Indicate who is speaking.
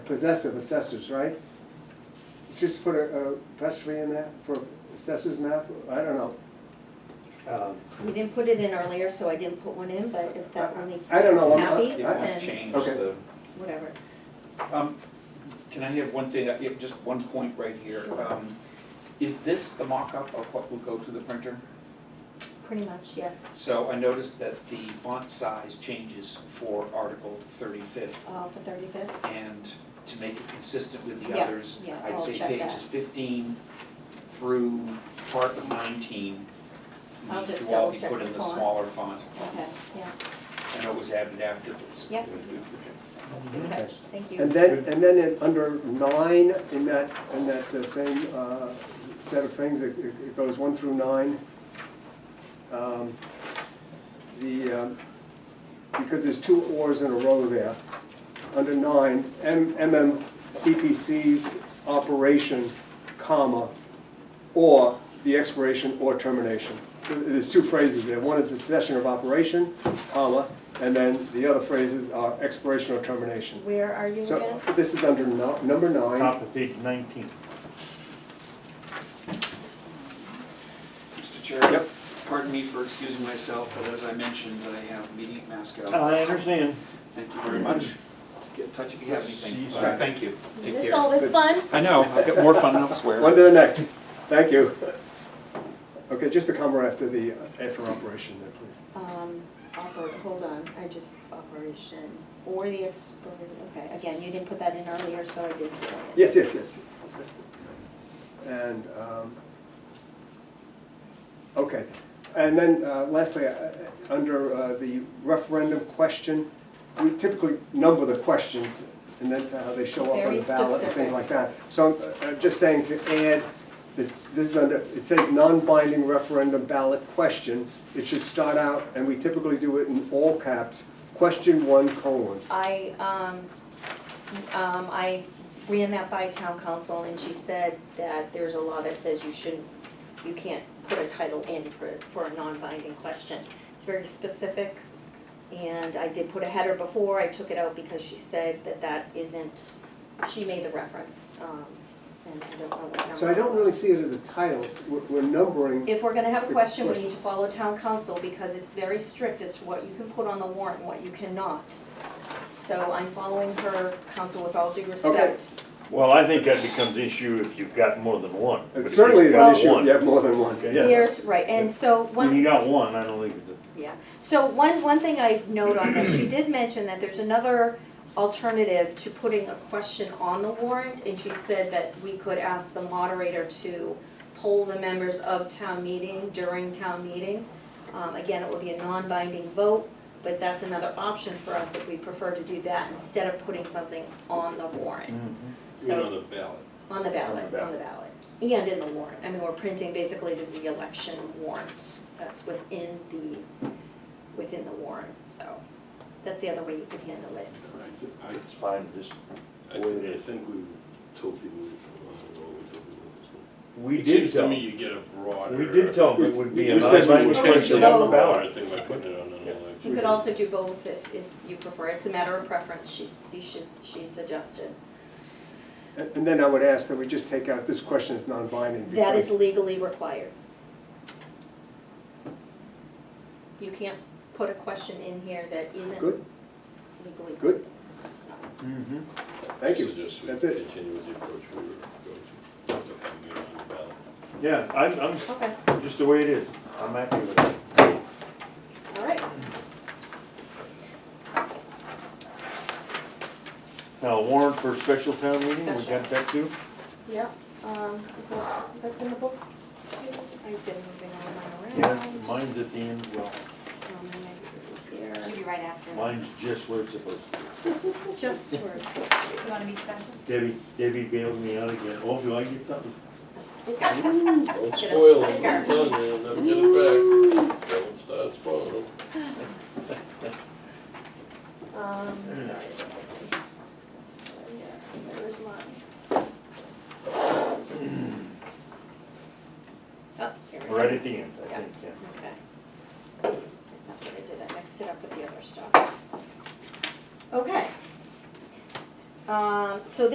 Speaker 1: possessive assessors, right? Just put a, a apostrophe in that for assessors map, I don't know.
Speaker 2: Um,
Speaker 3: We didn't put it in earlier, so I didn't put one in, but if that will make
Speaker 1: I don't know, I'm not-
Speaker 3: happy,
Speaker 1: I-
Speaker 2: You want to
Speaker 3: then
Speaker 2: change
Speaker 1: Okay.
Speaker 2: the,
Speaker 3: whatever.
Speaker 2: um, can I have one thing, I have just one point right here?
Speaker 3: Sure.
Speaker 2: Um, Is this the mock-up of what will go to the printer?
Speaker 3: Pretty much, yes.
Speaker 2: So I noticed that the font size changes for Article thirty-fifth,
Speaker 3: Uh, for thirty-fifth,
Speaker 2: and to make it consistent with the
Speaker 3: Yeah,
Speaker 2: others,
Speaker 3: yeah,
Speaker 2: I'd
Speaker 3: I'll
Speaker 2: say
Speaker 3: check that.
Speaker 2: pages fifteen through part of nineteen
Speaker 3: I'll
Speaker 2: need
Speaker 3: just
Speaker 2: to all be
Speaker 3: double-check
Speaker 2: put
Speaker 3: the
Speaker 2: in the
Speaker 3: font.
Speaker 2: smaller font.
Speaker 3: okay, yeah,
Speaker 2: I know it was added afterwards.
Speaker 3: Yep. that's a good
Speaker 1: Okay.
Speaker 3: catch, thank you.
Speaker 1: And then, and then in, under nine, in that, in that uh, same, uh, set of things, it, it goes one through nine. Um, The, um, because there's two ors in a row there, under nine, M, MMCPC's operation, comma, or the expiration or termination. So There's two phrases there, one is a cessation of operation, comma, and then the other phrases are expiration or termination.
Speaker 3: Where are you again?
Speaker 1: So this is under no- number nine.
Speaker 4: Top of page nineteen.
Speaker 2: Mr. Chair? Yep. Pardon me for excusing myself, but as I mentioned, I have a meeting at Masco.
Speaker 4: I understand.
Speaker 2: Thank you very much. Get in touch if you have anything.
Speaker 4: Jeez.
Speaker 2: All right, Thank you. Take
Speaker 3: This
Speaker 2: care.
Speaker 3: all this fun?
Speaker 2: I know, I've got more fun elsewhere.
Speaker 1: On to the next. Thank you. Okay, just the comma after the, after operation there, please.
Speaker 3: Um, oper, hold on, I just, operation, or the ex, okay, again, you didn't put that in earlier, so I didn't put it in.
Speaker 1: Yes, yes, yes. And, um, okay. And then uh, lastly, uh, under uh, the referendum question, we typically number the questions and then how they show up on
Speaker 3: Very
Speaker 1: the ballot and
Speaker 3: specific.
Speaker 1: things like that. So I'm uh, just saying to add, that this is under, it says non-binding referendum ballot question. It should start out, and we typically do it in all caps, question one colon.
Speaker 3: I, um, um, I ran that by town council and she said that there's a law that says you shouldn't, you can't put a title in for, for a non-binding question. It's very specific and I did put a header before, I took it out because she said that that isn't, she made the reference, um, and I don't know what number.
Speaker 1: So I don't
Speaker 3: it
Speaker 1: really
Speaker 3: was.
Speaker 1: see it as a title. We're- We're numbering
Speaker 3: If we're gonna have a
Speaker 1: Good
Speaker 3: question, we need to
Speaker 1: question.
Speaker 3: follow town council because it's very strict as to what you can put on the warrant and what you cannot. So I'm following her counsel with all due respect.
Speaker 4: Well, I think that becomes an issue if you've got more than one. But if
Speaker 1: It
Speaker 4: you've
Speaker 1: certainly is an
Speaker 4: got
Speaker 1: issue if
Speaker 4: one-
Speaker 1: you have more than one.
Speaker 4: Okay.
Speaker 3: Here's, right, and so
Speaker 4: When
Speaker 3: one,
Speaker 4: you got one, I don't think it's a.
Speaker 3: yeah, so one, one thing I note on this, she did mention that there's another alternative to putting a question on the warrant, and she said that we could ask the moderator to poll the members of town meeting during town meeting. Um, again, it would be a non-binding vote, but that's another option for us if we prefer to do that instead of putting something on the warrant.
Speaker 4: mm-hmm,
Speaker 3: So-
Speaker 2: the ballot.
Speaker 3: On the ballot,
Speaker 4: On
Speaker 3: on
Speaker 4: the
Speaker 3: the ballot, and in the warrant, I mean, we're printing, basically, this is the election warrant, that's within the, within the warrant, so, that's the other way you could handle it.
Speaker 5: I thi- I-
Speaker 4: It's fine, just,
Speaker 5: I thi- I think we told people, I don't know, we told people this one.
Speaker 4: we
Speaker 5: It seems
Speaker 4: did
Speaker 5: to
Speaker 4: tell,
Speaker 5: me
Speaker 4: we
Speaker 5: you get a broader.
Speaker 4: did tell them it would be a
Speaker 5: You said we
Speaker 4: non-binding
Speaker 3: non-binding
Speaker 5: would put
Speaker 4: question
Speaker 5: it
Speaker 3: vote.
Speaker 4: on
Speaker 5: on
Speaker 4: the ballot.
Speaker 5: I think by putting it on an election.
Speaker 3: You could also do both if, if you prefer, it's a matter of preference, she, she should, she suggested.
Speaker 1: And and then I would ask that we just take out, this question is non-binding.
Speaker 3: That is
Speaker 1: because-
Speaker 3: legally required. You can't put a question in here that isn't
Speaker 1: Good.
Speaker 3: legally.
Speaker 1: Good.
Speaker 3: It's not.
Speaker 4: Mhm.
Speaker 1: Thank you.
Speaker 5: Suggest we
Speaker 1: That's it.
Speaker 5: continue with the approach we were going to. Putting it on the ballot.
Speaker 4: Yeah, I'm,
Speaker 3: Okay,
Speaker 4: I'm, just the way it is, I'm happy with it.
Speaker 3: all right.
Speaker 4: Now, warrant for special town meeting, we
Speaker 3: Special.
Speaker 4: got that too?
Speaker 3: Yeah, um, is that, that's in the book? I've been moving all
Speaker 4: Yeah,
Speaker 3: mine around.
Speaker 4: mine's at the end, well,
Speaker 3: Um, and I put it
Speaker 6: Should
Speaker 3: here.
Speaker 6: be right after.
Speaker 4: mine's just where it's supposed to be.
Speaker 3: Just for
Speaker 6: You wanna be special?
Speaker 4: Debbie, Debbie bailed me out again, oh, do I get something?
Speaker 3: a sticker.
Speaker 5: Don't
Speaker 3: Get a
Speaker 5: spoil it,
Speaker 3: sticker.
Speaker 5: I'm telling you, you'll never get it back. Don't start spoiling it.
Speaker 3: Um, sorry. Where's mine? Oh, here it is.
Speaker 4: Right at the end.
Speaker 3: Um,